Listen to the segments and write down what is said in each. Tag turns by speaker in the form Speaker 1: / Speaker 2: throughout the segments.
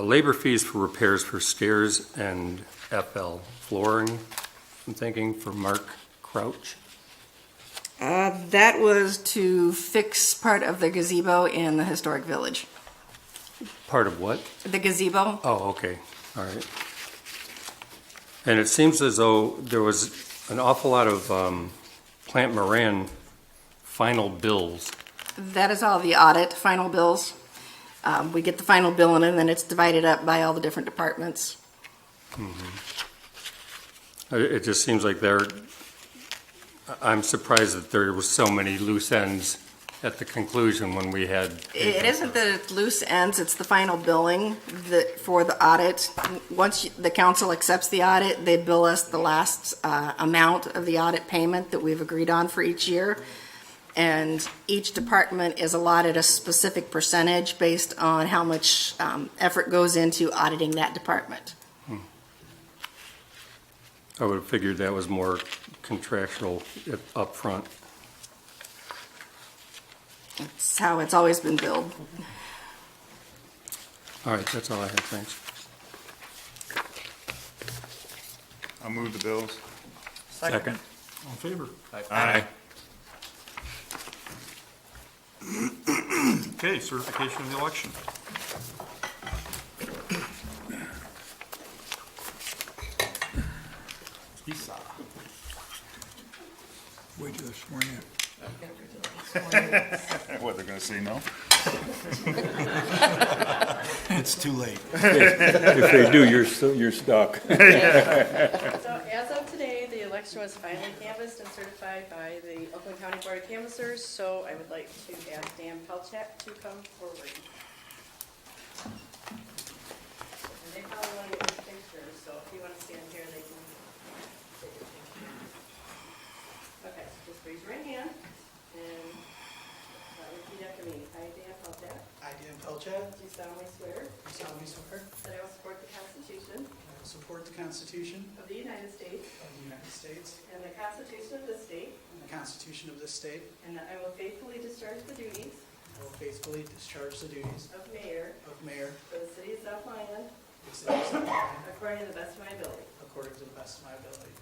Speaker 1: uh, labor fees for repairs for stairs and FL flooring, I'm thinking, for Mark Crouch.
Speaker 2: Uh, That was to fix part of the gazebo in the historic village.
Speaker 1: Part of what?
Speaker 2: The gazebo,
Speaker 1: Oh, okay, all right. And it seems as though there was an awful lot of um, Plant Moran final bills.
Speaker 2: that is all the audit, final bills. Um, We get the final bill in, and then it's divided up by all the different departments.
Speaker 1: It it just seems like there, I- I'm surprised that there were so many loose ends at the conclusion when we had.
Speaker 2: It isn't that it's loose ends, it's the final billing that, for the audit. Once you- the council accepts the audit, they bill us the last uh, amount of the audit payment that we've agreed on for each year. And each department is allotted a specific percentage based on how much um, effort goes into auditing that department.
Speaker 1: I would have figured that was more contractual up- upfront.
Speaker 2: It's how it's always been billed.
Speaker 1: All right, that's all I have, thanks.
Speaker 3: I'll move the bills.
Speaker 1: Second.
Speaker 4: All in favor?
Speaker 3: Aye.
Speaker 4: Okay, certification of the election. Esau.
Speaker 5: Wait till they're sworn in.
Speaker 3: What, they're gonna say no?
Speaker 5: It's too late.
Speaker 6: If they do, you're, stu- you're stuck.
Speaker 7: So as of today, the election was finally canvassed and certified by the Oakland County Board of Canvassers, so I would like to ask Dan Pelchat to come forward. And they probably want to get your picture, so if you want to stand here, they can take your picture. Okay, just raise your right hand and uh, repeat after me. I, Dan Pelchat,
Speaker 8: I, Dan Pelchat,
Speaker 7: do solemnly swear
Speaker 8: do solemnly swear
Speaker 7: that I will support the Constitution
Speaker 8: that I will support the Constitution
Speaker 7: of the United States
Speaker 8: of the United States
Speaker 7: and the Constitution of this state,
Speaker 8: and the Constitution of this state.
Speaker 7: And that I will faithfully discharge the duties
Speaker 8: I will faithfully discharge the duties
Speaker 7: of mayor
Speaker 8: of mayor
Speaker 7: for the city of South Lyon
Speaker 8: of the city of South Lyon
Speaker 7: according to the best of my ability.
Speaker 8: according to the best of my ability.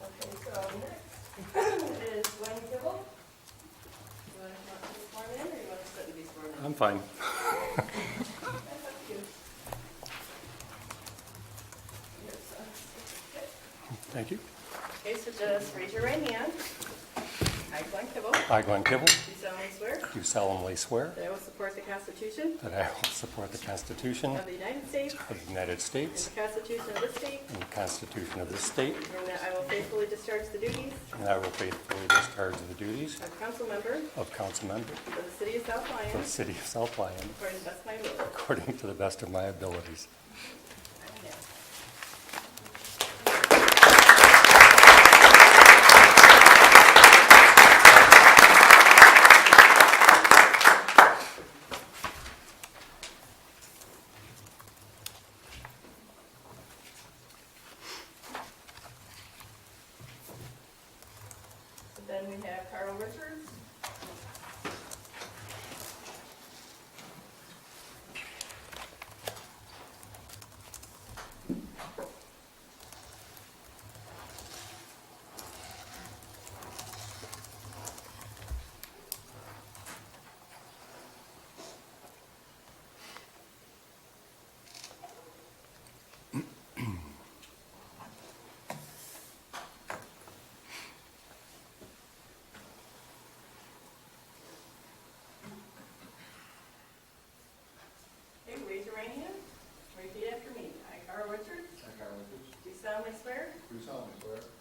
Speaker 7: Okay, so next is Wayne Kibble. You want to come up and be sworn in, or you want to sit and be sworn in?
Speaker 1: I'm fine.
Speaker 7: That's up to you. Here, so.
Speaker 1: Thank you.
Speaker 7: Okay, so just raise your right hand. I, Glenn Kibble, do
Speaker 1: I, Glenn Kibble,
Speaker 7: solemnly swear
Speaker 1: do solemnly swear
Speaker 7: that I will support the Constitution
Speaker 1: that I will support the Constitution
Speaker 7: of the United States
Speaker 1: of the United
Speaker 7: and
Speaker 1: States
Speaker 7: the Constitution of this state,
Speaker 1: and the Constitution of this state,
Speaker 7: and that I will faithfully discharge the duties
Speaker 1: and I will faithfully discharge the duties
Speaker 7: of council member
Speaker 1: of council member
Speaker 7: for the city of South
Speaker 1: for
Speaker 7: Lyon
Speaker 1: the city of South Lyon
Speaker 7: according to the best of my ability.
Speaker 1: according to the best of my abilities.
Speaker 7: Then we have Carl Richards. Okay, raise your right hand. Repeat after me. I, Carl Richards,
Speaker 9: I, Carl Richards,
Speaker 7: do solemnly swear
Speaker 9: do solemnly swear that